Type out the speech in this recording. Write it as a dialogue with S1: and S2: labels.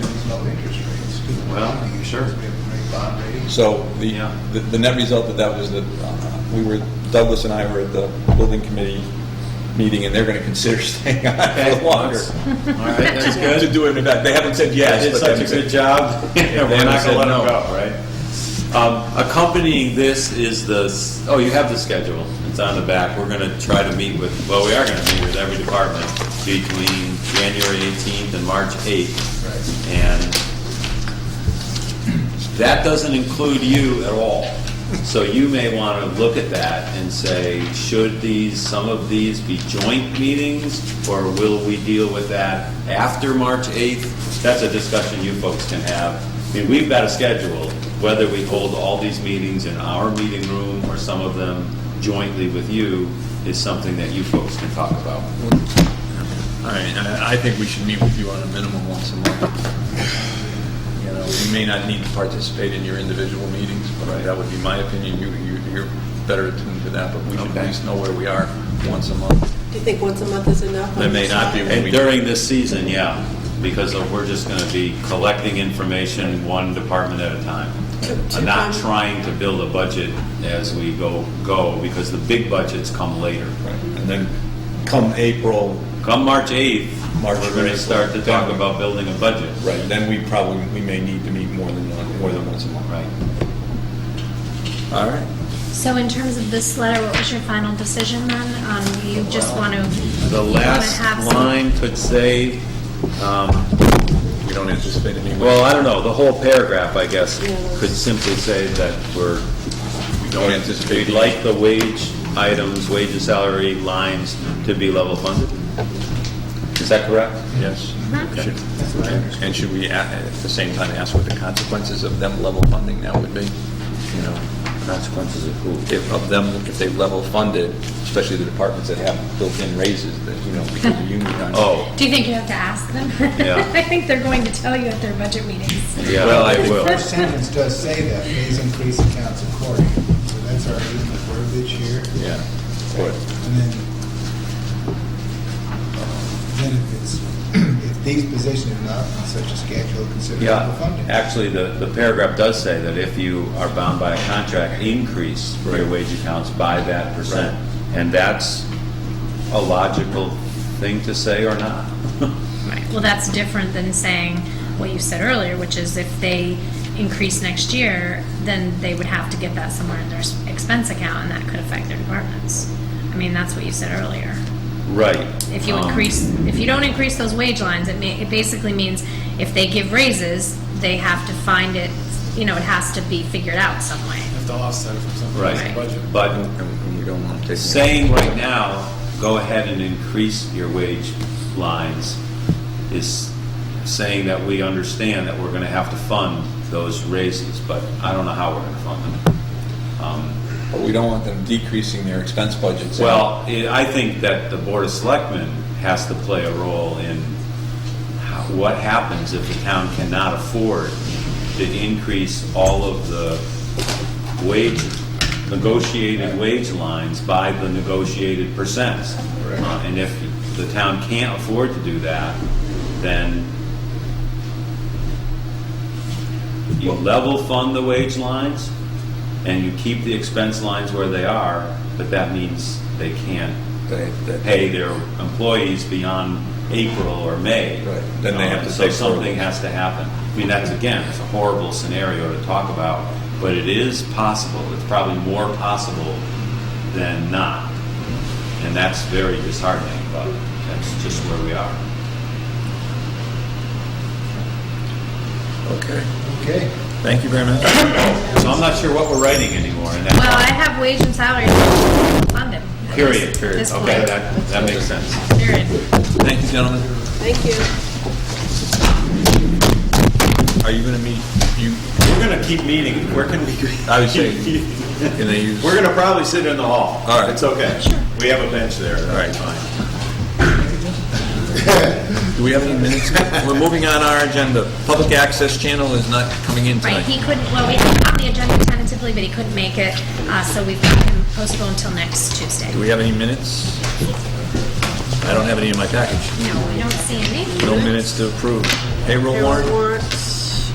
S1: Well, you sure?
S2: We have a great bond rating.
S3: So the,
S1: Yeah.
S3: the- the net result of that was that uh, we were, Douglas and I were at the building committee meeting, and they're going to consider staying on
S1: Okay,
S3: for longer.
S1: All right, that's
S3: To
S1: good.
S3: do it, in fact, they haven't said
S1: Yeah,
S3: yes.
S1: did
S3: but they
S1: such a
S3: haven't said-
S1: good job.
S3: Yeah,
S1: We're
S3: they
S1: not
S3: said
S1: gonna let
S3: no.
S1: them go, right? Um, Accompanying this is the, s- oh, you have the schedule. It's on the back. We're gonna try to meet with, well, we are gonna meet with every department between January 18th and March 8th.
S2: Right.
S1: And that doesn't include you at all. So you may want to look at that and say, should these, some of these be joint meetings? Or will we deal with that after March 8th? That's a discussion you folks can have. I mean, we've got a schedule, whether we hold all these meetings in our meeting room or some of them jointly with you is something that you folks can talk about.
S4: All right, I I think we should meet with you on a minimum once a month. You know, we may not need to participate in your individual meetings, but that would be my opinion. You, you- you're better attuned to that, but we should at
S1: Okay.
S4: least know where we are once a month.
S5: Do you think once a month is enough?
S4: That may not be when
S1: And
S4: we.
S1: during this season, yeah, because of- we're just gonna be collecting information one department at a time.
S5: Two- two
S1: I'm not
S5: times.
S1: trying to build a budget as we go, go, because the big budgets come later.
S3: Right, And then come April,
S1: Come March 8th,
S3: March
S1: we're gonna
S3: April.
S1: start to talk about building a budget.
S3: right, then we probably, we may need to meet more than, one- more than once a month.
S1: Right.
S4: All right.
S6: So in terms of this letter, what was your final decision then? Um, you just want to.
S1: The last line could say, um,
S4: We don't anticipate any.
S1: well, I don't know, the whole paragraph, I guess,
S5: Yeah.
S1: could simply say that we're
S4: We don't anticipate.
S1: We'd like the wage items, wage and salary lines to be level funded. Is that correct?
S4: Yes. Should- And should we, a- at the same time, ask what the consequences of them level funding now would be? You know,
S1: Consequences of who?
S4: if, of them, if they level funded, especially the departments that have built-in raises, that, you know, because of union.
S1: Oh,
S6: Do you think you have to ask them?
S1: Yeah.
S6: I think they're going to tell you at their budget meetings.
S1: yeah,
S4: Well, I
S1: they
S4: think-
S1: will.
S2: The first sentence does say that, pays increase accounts according, so that's our new verbiage here.
S4: Yeah.
S2: And then, uh, then if it's, if these positions are not on such a schedule, consider level
S1: Yeah,
S2: funding.
S1: actually, the, the paragraph does say that if you are bound by a contract, increase your wage accounts by that percent. And that's a logical thing to say or not.
S6: Right. Well, that's different than saying what you said earlier, which is if they increase next year, then they would have to get that somewhere in their s- expense account, and that could affect their departments. I mean, that's what you said earlier.
S1: Right.
S6: If you
S1: Um,
S6: increase, if you don't increase those wage lines, it may, it basically means if they give raises, they have to find it, you know, it has to be figured out some way.
S7: have to offset it from something else in the
S1: Right,
S7: budget.
S1: but
S4: And we don't want to take.
S1: saying right now, go ahead and increase your wage lines is saying that we understand that we're gonna have to fund those raises, but I don't know how we're gonna fund them. Um,
S3: But we don't want them decreasing their expense budgets.
S1: Well, i- I think that the Board of Selectmen has to play a role in how- what happens if the town cannot afford to increase all of the wage, negotiated wage lines by the negotiated percents.
S2: Correct.
S1: Uh, And if the town can't afford to do that, then you level fund the wage lines and you keep the expense lines where they are, but that means they can't
S3: They- they-
S1: pay their employees beyond April or May.
S3: Right. Then they have to pay
S1: Uh, So
S3: for it.
S1: something has to happen. I mean, that's, again, it's a horrible scenario to talk about, but it is possible. It's probably more possible than not. And that's very disheartening, but that's just where we are.
S4: Okay,
S2: Okay.
S4: thank you very much.
S1: So I'm not sure what we're writing anymore in that.
S6: Well, I have wage and salary funded.
S1: Period, period.
S6: This
S1: Okay,
S6: point.
S1: that, that makes sense.
S6: Period.
S4: Thank you, gentlemen.
S5: Thank you.
S4: Are you going to meet, you,
S1: We're gonna keep meeting. Where can we?
S4: I was saying, can they use?
S1: We're gonna probably sit in the hall.
S4: All right.
S1: It's okay. We have a bench there. All
S4: right.
S1: fine.
S4: Do we have any minutes? We're moving on our agenda. Public access channel is not coming in
S6: Right,
S4: tonight.
S6: he couldn't, well, we had it on the agenda tentatively, but he couldn't make it, uh, so we've got him postponed until next Tuesday.
S4: Do we have any minutes? I don't have any in my package.
S6: No, we don't see any.
S4: No minutes to approve. Payroll warrant?
S5: Warrant.